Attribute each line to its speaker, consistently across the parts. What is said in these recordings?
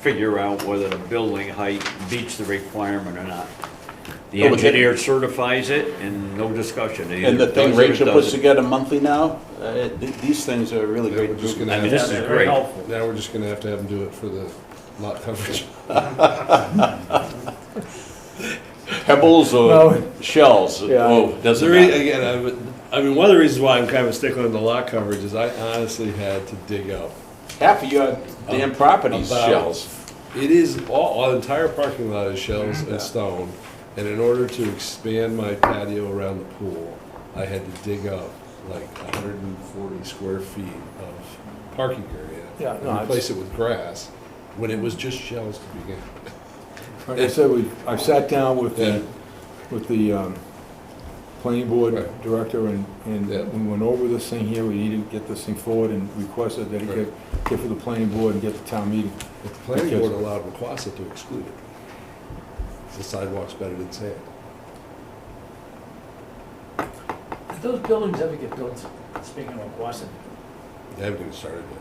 Speaker 1: figure out whether the building height meets the requirement or not. The
Speaker 2: No, but they-
Speaker 1: engineer certifies it and no discussion. It
Speaker 2: And the
Speaker 1: either
Speaker 2: thing
Speaker 1: does or it
Speaker 2: Rachel puts
Speaker 1: doesn't.
Speaker 2: together monthly now, uh, th- these things are really
Speaker 3: Now we're
Speaker 2: great.
Speaker 3: just
Speaker 2: to do.
Speaker 3: gonna
Speaker 1: I
Speaker 3: have
Speaker 1: mean, this
Speaker 3: to,
Speaker 1: is great.
Speaker 3: now we're just gonna have to have them do it for the lot coverage.
Speaker 2: Pebbles or
Speaker 4: No.
Speaker 2: shells,
Speaker 4: Yeah.
Speaker 2: oh,
Speaker 3: The
Speaker 2: doesn't
Speaker 3: rea-
Speaker 2: matter.
Speaker 3: again, I would, I mean, one of the reasons why I'm kind of sticking on the lot coverage is I honestly had to dig up.
Speaker 2: Half of your damn property's
Speaker 3: About-
Speaker 2: shells.
Speaker 3: It is, all, all- the entire parking lot is shells and stone, and in order to expand my patio around the pool, I had to dig up like hundred and forty square feet of parking area.
Speaker 4: Yeah, no,
Speaker 3: And
Speaker 4: it's-
Speaker 3: replace it with grass, when it was just shells to begin.
Speaker 4: Like I said, we, I sat down with
Speaker 3: Yeah.
Speaker 4: the, with the, um, planning board
Speaker 3: Right.
Speaker 4: director and, and
Speaker 3: Yeah.
Speaker 4: we went over this thing here, we needed to get this thing forward and requested that it
Speaker 3: Right.
Speaker 4: get, get for the planning board and get to town meeting.
Speaker 3: But the planning board allowed Wacquasa to exclude it. The sidewalk's better than sand.
Speaker 5: Did those buildings ever get built, speaking of Wasson?
Speaker 3: They haven't even started yet.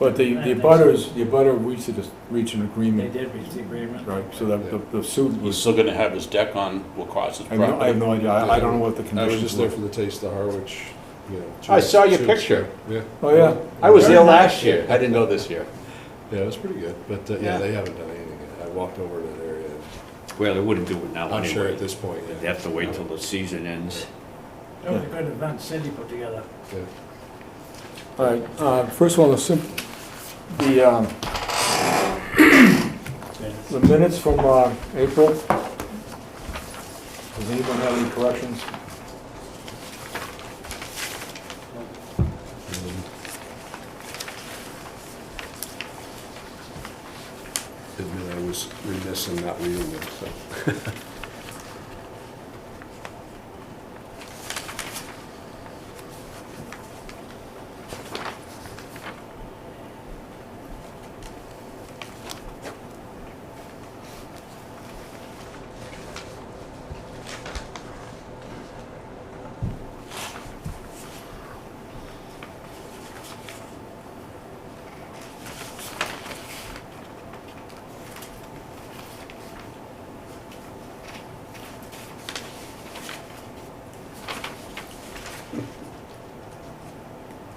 Speaker 4: But the, the butters, the butter reached, a- reached an
Speaker 5: They
Speaker 4: agreement,
Speaker 5: did reach the agreement.
Speaker 4: Mm. right, so that the, the suit
Speaker 2: He's
Speaker 4: was,
Speaker 2: still gonna have his deck on Wacquasa's
Speaker 4: I have no- I have
Speaker 2: property.
Speaker 4: no idea, I, I don't know what the
Speaker 3: I was
Speaker 4: conditions
Speaker 3: just there
Speaker 4: were.
Speaker 3: for the taste of Harwich, you know.
Speaker 2: I saw your
Speaker 3: chips.
Speaker 2: picture.
Speaker 3: Yeah,
Speaker 4: Oh, yeah,
Speaker 2: I was there
Speaker 5: Very
Speaker 2: last
Speaker 5: nice.
Speaker 2: year, I didn't go this year.
Speaker 3: yeah, it was pretty good, but, uh, yeah,
Speaker 2: Yeah.
Speaker 3: they haven't done anything yet. I walked over to that area. and
Speaker 1: Well, they wouldn't do it now
Speaker 3: I'm sure
Speaker 1: anyway.
Speaker 3: at this point, yeah.
Speaker 1: They have to wait till the season ends.
Speaker 5: That was a good event Cindy put together.
Speaker 3: Yeah.
Speaker 4: all right, uh, first of all, the sim, the, um, the minutes from, uh, April. Does anyone have any corrections?
Speaker 3: Mm-hmm. Admit I was remiss in not reading them, so.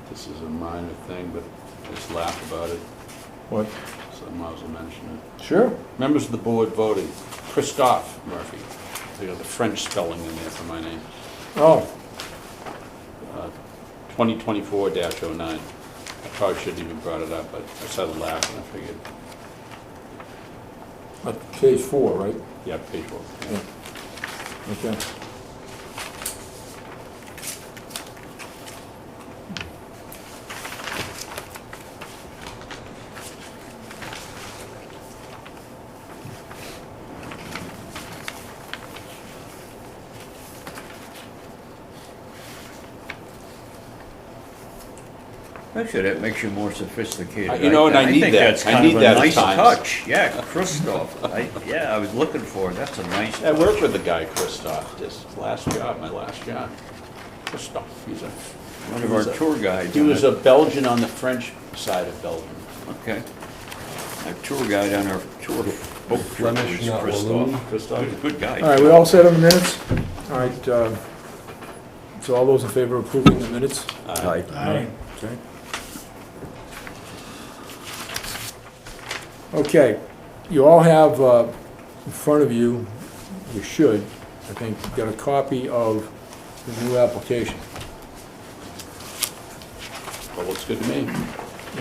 Speaker 2: This is a minor thing, but just laugh about it,
Speaker 4: What?
Speaker 2: so I might as well mention it.
Speaker 4: Sure.
Speaker 2: Members of the board voted Christophe Murphy. They got the French spelling in there for my name.
Speaker 4: Oh,
Speaker 2: 2024-09. I probably shouldn't even brought it up, but I started laughing, I figured,
Speaker 4: at page four, right?
Speaker 2: yeah, page one.
Speaker 4: Yeah. Okay.
Speaker 1: Actually, that makes you more sophisticated.
Speaker 2: Uh, you know, and I need
Speaker 1: think
Speaker 2: that.
Speaker 1: that's
Speaker 2: I
Speaker 1: kind of
Speaker 2: need
Speaker 1: a
Speaker 2: that at
Speaker 1: nice
Speaker 2: times.
Speaker 1: touch. Yeah, Christoph. I, yeah, I was looking for it. That's a nice
Speaker 2: I worked with the guy Christophe, this last job, my last job. Christophe, he's a,
Speaker 1: One of our tour guides.
Speaker 2: he
Speaker 1: on
Speaker 2: was
Speaker 1: it.
Speaker 2: a Belgian on the French side of Belgium.
Speaker 1: Okay. Our tour guide on our tour, boat trip
Speaker 3: Flemish,
Speaker 1: was
Speaker 3: not
Speaker 1: Christoph.
Speaker 3: Walloon.
Speaker 1: Good- Good guy.
Speaker 4: All right, we all set on the minutes? All right, uh, so all those in favor of approving the minutes?
Speaker 1: Aye.
Speaker 5: Aye.
Speaker 4: Okay. Okay, you all have uh, in front of you, you should, I think, got a copy of the new application.
Speaker 2: Well, looks good to me.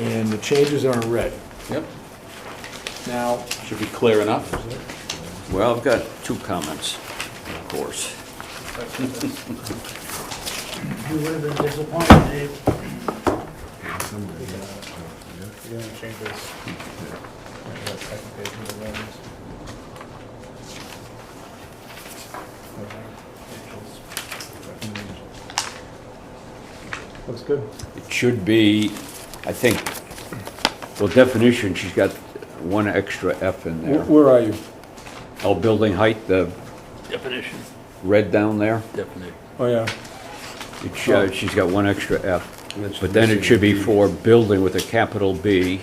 Speaker 4: And the changes are in red.
Speaker 2: Yep.
Speaker 4: Now,
Speaker 2: Should be clear enough.
Speaker 1: Well, I've got two comments, of course.
Speaker 5: You would have been disappointed, Dave.
Speaker 6: You're gonna change this. Yeah, that's second page of the ones.
Speaker 4: looks good.
Speaker 1: It should be, I think, well, definition, she's got one extra F in
Speaker 4: Wh-
Speaker 1: there.
Speaker 4: Where are you?
Speaker 1: Oh, building height, the
Speaker 2: Definition.
Speaker 1: red down there,
Speaker 2: Definition.
Speaker 4: Oh, yeah.
Speaker 1: it sh- uh, she's got one extra F.
Speaker 3: And then she's
Speaker 1: But then it
Speaker 3: missing
Speaker 1: should be
Speaker 3: the B.
Speaker 1: for building with a capital B,